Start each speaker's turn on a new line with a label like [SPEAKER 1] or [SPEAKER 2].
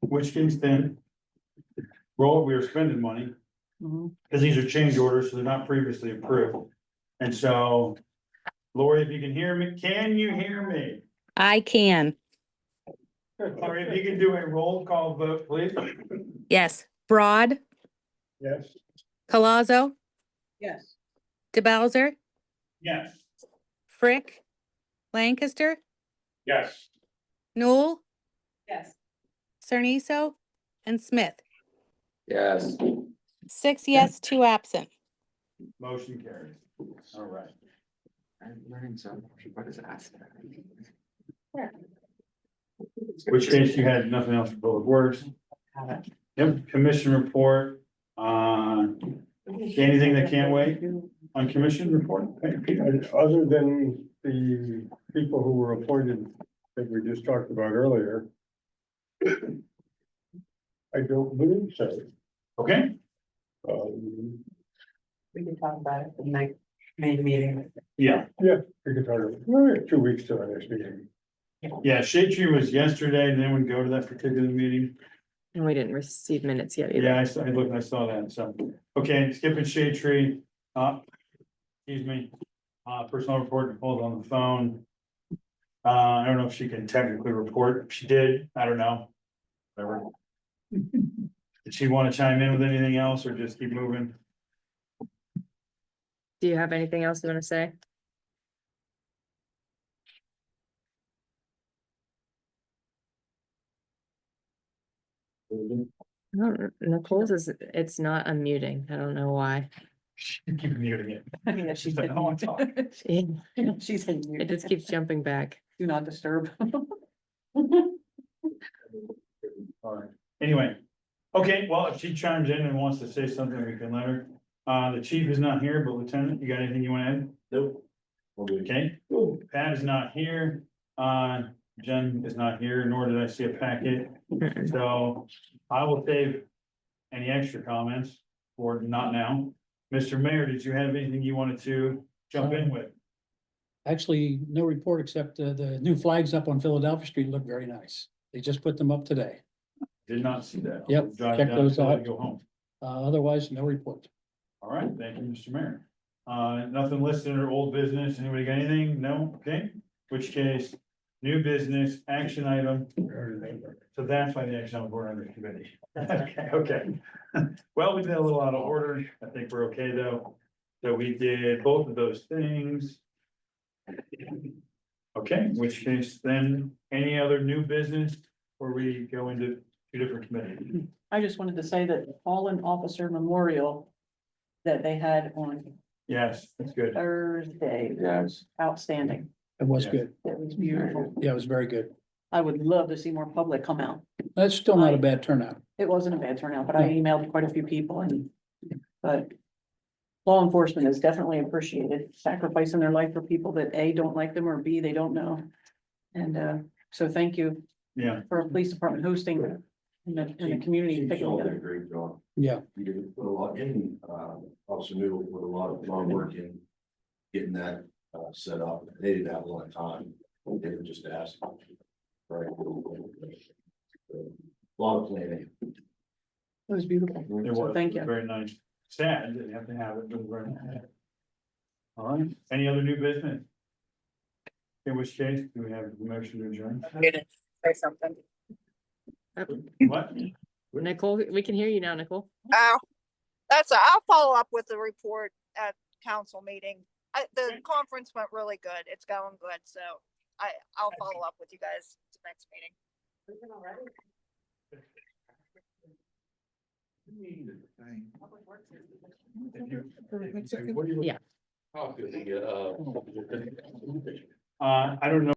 [SPEAKER 1] which case then. Roll, we are spending money,
[SPEAKER 2] Mhm.
[SPEAKER 1] because these are change orders, so they're not previously approved. And so, Lori, if you can hear me, can you hear me?
[SPEAKER 3] I can.
[SPEAKER 1] Lori, if you can do a roll call vote, please.
[SPEAKER 3] Yes. Broad,
[SPEAKER 1] Yes.
[SPEAKER 3] Colaszo,
[SPEAKER 2] Yes.
[SPEAKER 3] DeBelzer,
[SPEAKER 1] Yes.
[SPEAKER 3] Frick, Lancaster,
[SPEAKER 1] Yes.
[SPEAKER 3] Newell,
[SPEAKER 2] Yes.
[SPEAKER 3] Cerniso, and Smith.
[SPEAKER 4] Yes.
[SPEAKER 3] Six yes, two absent.
[SPEAKER 1] Motion carries. All right.
[SPEAKER 4] I'm learning so much. What is asset?
[SPEAKER 1] Which case you had nothing else but worse. Yep, commission report, uh, anything that can't wait on commission report?
[SPEAKER 5] Other than the people who were appointed that we just talked about earlier. I don't believe so.
[SPEAKER 1] Okay,
[SPEAKER 5] Um,
[SPEAKER 2] We can talk about it the night, May meeting.
[SPEAKER 1] yeah,
[SPEAKER 5] we could talk about- well, we have two weeks to our next meeting.
[SPEAKER 1] yeah, shade tree was yesterday, and then we go to that particular meeting.
[SPEAKER 6] And we didn't receive minutes yet either.
[SPEAKER 1] Yeah, I saw, I looked, I saw that, so, okay, skipping shade tree, uh, excuse me, uh, personal report, Nicole's on the phone. Uh, I don't know if she can technically report, If she did, I don't know, whatever. Did she wanna chime in with anything else, or just keep moving?
[SPEAKER 6] Do you have anything else you want to say? I don't kn- Nicole's is, it's not unmuting. I don't know why.
[SPEAKER 1] Keep muting it.
[SPEAKER 2] Yeah, she
[SPEAKER 1] She's like,
[SPEAKER 2] said,
[SPEAKER 1] "I don't wanna talk."
[SPEAKER 6] It
[SPEAKER 2] she said,
[SPEAKER 6] it just keeps jumping back.
[SPEAKER 2] do not disturb.
[SPEAKER 1] Alright, anyway, okay, well, if she chimes in and wants to say something, we can let her. Uh, the chief is not here, but Lieutenant, you got anything you wanna add? Nope. Okay, Pat is not here, uh, Jen is not here, nor did I see a packet,
[SPEAKER 6] Mm-mm.
[SPEAKER 1] so I will save. Any extra comments, or not now. Mr. Mayor, did you have anything you wanted to jump
[SPEAKER 7] Uh,
[SPEAKER 1] in with?
[SPEAKER 7] Actually, no report except uh, the new flags up on Philadelphia Street look very nice. They just put them up today.
[SPEAKER 1] Did not see that.
[SPEAKER 7] Yep,
[SPEAKER 1] I'll drive
[SPEAKER 7] check
[SPEAKER 1] down
[SPEAKER 7] those
[SPEAKER 1] before I
[SPEAKER 7] out.
[SPEAKER 1] Go home.
[SPEAKER 7] Uh, Otherwise, no report.
[SPEAKER 1] All right, thank you, Mr. Mayor. Uh, nothing listed under old business. Anybody got anything? No? Okay, which case, new business, action item. So that's why the action item board under committee. Okay, okay. Well, we did a little out of order. I think we're okay, though. So we did both of those things. Okay, which case then, any other new business or we go into two different committees?
[SPEAKER 2] I just wanted to say that the fallen officer memorial that they had on
[SPEAKER 1] Yes, that's good.
[SPEAKER 2] Thursday,
[SPEAKER 4] Yes.
[SPEAKER 2] outstanding.
[SPEAKER 7] It was
[SPEAKER 1] Yes.
[SPEAKER 7] good.
[SPEAKER 2] It was beautiful.
[SPEAKER 7] Yeah, it was very good.
[SPEAKER 2] I would love to see more public come out.
[SPEAKER 7] That's still not a
[SPEAKER 2] Aye.
[SPEAKER 7] bad turnout.
[SPEAKER 2] It wasn't a bad turnout, but I emailed quite a few people and, but. Law enforcement is definitely appreciated, sacrificing their life for people that A, don't like them, or B, they don't know. And, uh, so thank you
[SPEAKER 1] Yeah,
[SPEAKER 2] for a police department hosting and the, and the community.
[SPEAKER 8] Chief
[SPEAKER 2] picking
[SPEAKER 8] Shaw
[SPEAKER 2] it
[SPEAKER 8] did
[SPEAKER 2] up.
[SPEAKER 8] a great job.
[SPEAKER 7] Yeah.
[SPEAKER 8] He did put a lot in, uh, Officer Noodle put a lot of hard work in getting that, uh, set up. They didn't have a lot of time. They were just asked. Right. Lot of planning.
[SPEAKER 2] It was beautiful.
[SPEAKER 1] It
[SPEAKER 2] So
[SPEAKER 1] was.
[SPEAKER 2] thank
[SPEAKER 1] It was
[SPEAKER 2] you.
[SPEAKER 1] Very nice. Sad that you have to have it, but very nice. All right, any other new business? In which case, do we have the motion to adjourn?
[SPEAKER 9] say something.
[SPEAKER 1] What?
[SPEAKER 6] Nicole, we can hear you now, Nicole.
[SPEAKER 9] Oh, that's, I'll follow up with the report at council meeting. I, the conference went really good. It's going good, so I, I'll follow up with you guys at the next meeting.
[SPEAKER 6] Yeah.
[SPEAKER 4] How could they get, uh,
[SPEAKER 8] Oh,
[SPEAKER 1] Uh, I don't know.